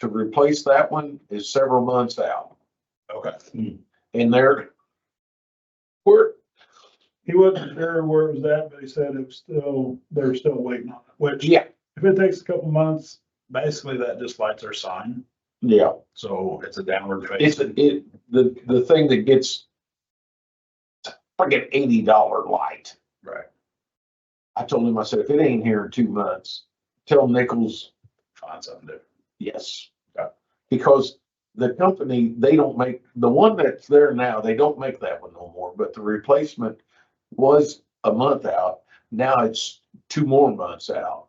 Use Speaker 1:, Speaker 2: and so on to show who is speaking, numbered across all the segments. Speaker 1: to replace that one is several months out.
Speaker 2: Okay.
Speaker 3: Hmm.
Speaker 1: And there,
Speaker 3: Where, he wasn't sure where it was at, but he said it was still, they're still waiting on it, which
Speaker 1: yeah,
Speaker 3: if it takes a couple months,
Speaker 2: Basically, that just lights our sign,
Speaker 1: yeah,
Speaker 2: so it's a downward
Speaker 1: it's,
Speaker 2: face.
Speaker 1: it, the, the thing that gets friggin' eighty dollar light.
Speaker 2: Right.
Speaker 1: I told him, I said, if it ain't here in two months, tell Nichols,
Speaker 2: Find something to.
Speaker 1: yes.
Speaker 2: Okay.
Speaker 1: Because the company, they don't make, the one that's there now, they don't make that one no more, but the replacement was a month out. Now it's two more months out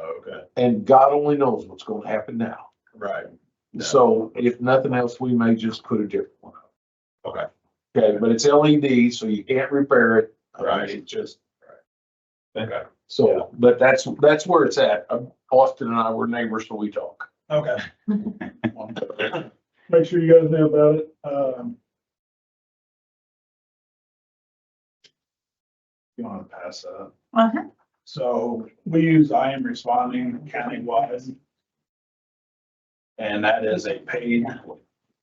Speaker 2: Okay,
Speaker 1: and God only knows what's gonna happen now.
Speaker 2: right. Yeah.
Speaker 1: So if nothing else, we may just put a different one up.
Speaker 2: Okay.
Speaker 1: Okay, but it's LED, so you can't repair it. I mean,
Speaker 2: Right.
Speaker 1: It just,
Speaker 2: Okay.
Speaker 1: so, but that's, that's where it's at. Um, Austin and I were neighbors, so we talk.
Speaker 2: Okay.
Speaker 3: make sure you guys know about it, um.
Speaker 2: You wanna pass that?
Speaker 4: Uh-huh.
Speaker 3: So we use I am responding countywide.
Speaker 2: And that is a paid,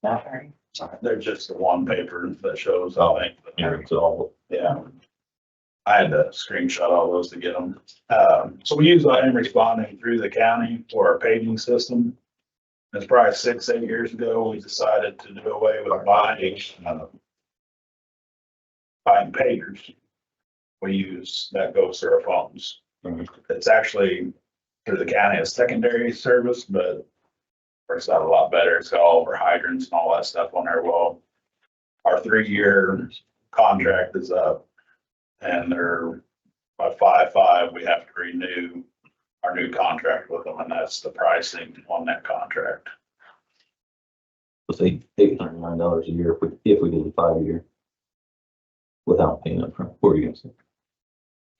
Speaker 4: Not very.
Speaker 2: there's just the one paper that shows, I
Speaker 5: Yeah,
Speaker 2: think.
Speaker 5: it's all,
Speaker 2: Yeah. I had to screenshot all those to get them. Um, so we use I am responding through the county for our paging system. It's probably six, eight years ago, we decided to do away with buying, uh, buying pagers. We use, that goes through our phones.
Speaker 5: Mhm.
Speaker 2: It's actually through the county as secondary service, but works out a lot better. It's got all of our hydrants and all that stuff on there. Well, our three-year contract is up and they're by five, five, we have to renew our new contract with them and that's the pricing on that contract.
Speaker 5: it's eight, eight hundred and nine dollars a year if we, if we did a five year. Without paying upfront, what were you gonna say?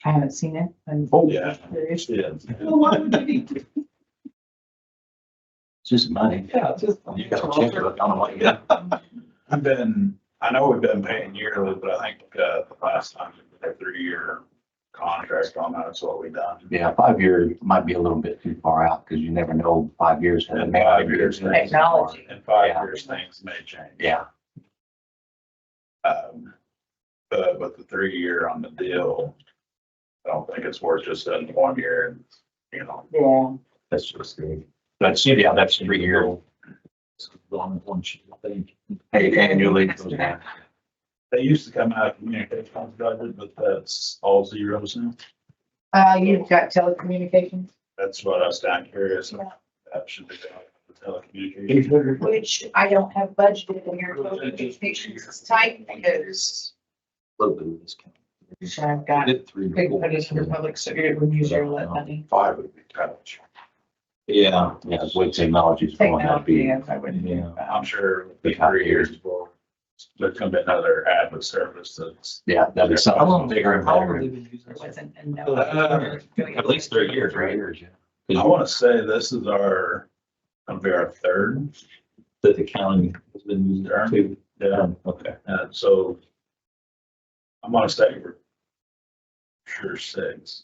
Speaker 4: I haven't seen it. I'm
Speaker 2: Oh, Yeah.
Speaker 4: curious.
Speaker 2: Yeah.
Speaker 5: It's Just money. Yeah, just. You got a checkbook, I don't know what you got.
Speaker 2: I've been, I know we've been paying yearly, but I think, uh, the last time, a three-year contract on that is what we done.
Speaker 6: Yeah, five years might be a little bit too far out because you never know five years. how the
Speaker 2: And five
Speaker 6: market
Speaker 2: years.
Speaker 6: is gonna
Speaker 4: Technology.
Speaker 2: In five
Speaker 6: Yeah.
Speaker 2: years, things may change.
Speaker 6: Yeah,
Speaker 2: Um, but with the three year on the deal, I don't think it's worth just in one year, and you know,
Speaker 4: Yeah.
Speaker 5: That's just great.
Speaker 6: that's, yeah, that's three year,
Speaker 5: It's One, one sheet, I think.
Speaker 6: hey, annually goes down.
Speaker 2: they used to come out of communications budget, but that's all zeros now.
Speaker 4: Uh, you've got telecommunications,
Speaker 2: That's what I was down curious.
Speaker 4: Yeah.
Speaker 2: That should be down for telecommunications.
Speaker 6: Well,
Speaker 4: which I don't have budgeted in your telecommunications is tight because
Speaker 5: Little bit of discount.
Speaker 4: I've got
Speaker 5: Did three.
Speaker 4: big budgets under public, so it would use your lit money.
Speaker 1: Five would be kind of.
Speaker 5: Yeah.
Speaker 6: Yeah, the way technology's going, that'd
Speaker 4: Technology,
Speaker 6: be,
Speaker 4: yes, I wouldn't. do
Speaker 5: Yeah.
Speaker 2: I'm
Speaker 4: that.
Speaker 2: sure it'll be three years before there's gonna be another admin service that's.
Speaker 6: yeah, that'd be something bigger and better.
Speaker 4: There
Speaker 5: better.
Speaker 4: wasn't a no.
Speaker 2: Uh,
Speaker 5: At least three years, right?
Speaker 2: I wanna say this is our, gonna be our third,
Speaker 5: That the county has been using it too.
Speaker 2: yeah,
Speaker 5: Okay.
Speaker 2: and so. I'm gonna say we're sure six.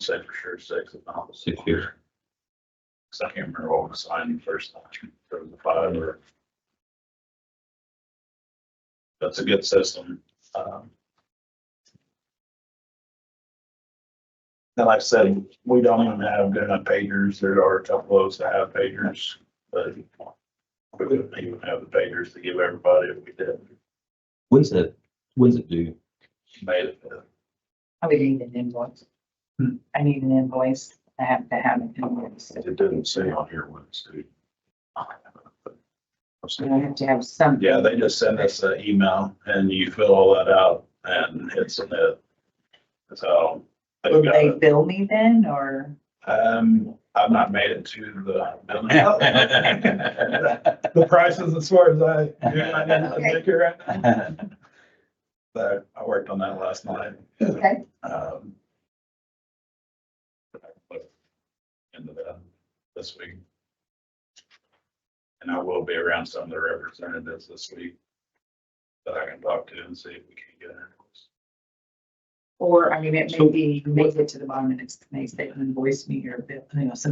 Speaker 2: Say for sure six, if not
Speaker 5: Six years.
Speaker 2: Cause I can't remember what was signed first time, if it was a five or. That's a good system. Um, And like I said, we don't even have good enough pagers. There are a couple of those that have pagers, but we wouldn't even have the pagers to give everybody if we did.
Speaker 5: When's it, when's it due?
Speaker 2: Made it. uh,
Speaker 4: I would need an invoice.
Speaker 2: Hmm.
Speaker 4: I need an invoice. I have to have an invoice.
Speaker 1: It doesn't say on here what it's due.
Speaker 4: And I have to have some.
Speaker 2: Yeah, they just send us an email and you fill all that out and hit submit. So. they've
Speaker 4: Will
Speaker 2: got
Speaker 4: they
Speaker 2: it.
Speaker 4: bill me then or?
Speaker 2: Um, I've not made it to the.
Speaker 3: The prices as far as I, I didn't
Speaker 4: Okay.
Speaker 3: make it right
Speaker 2: But I worked on that last night.
Speaker 4: Okay.
Speaker 2: Um, but Into that this week. And I will be around some of the representatives this week that I can talk to and see if we can get an invoice.
Speaker 4: Or, I mean, it may
Speaker 6: So-
Speaker 4: be, make it to the bottom and it's, may say invoice me or, bill, you know, some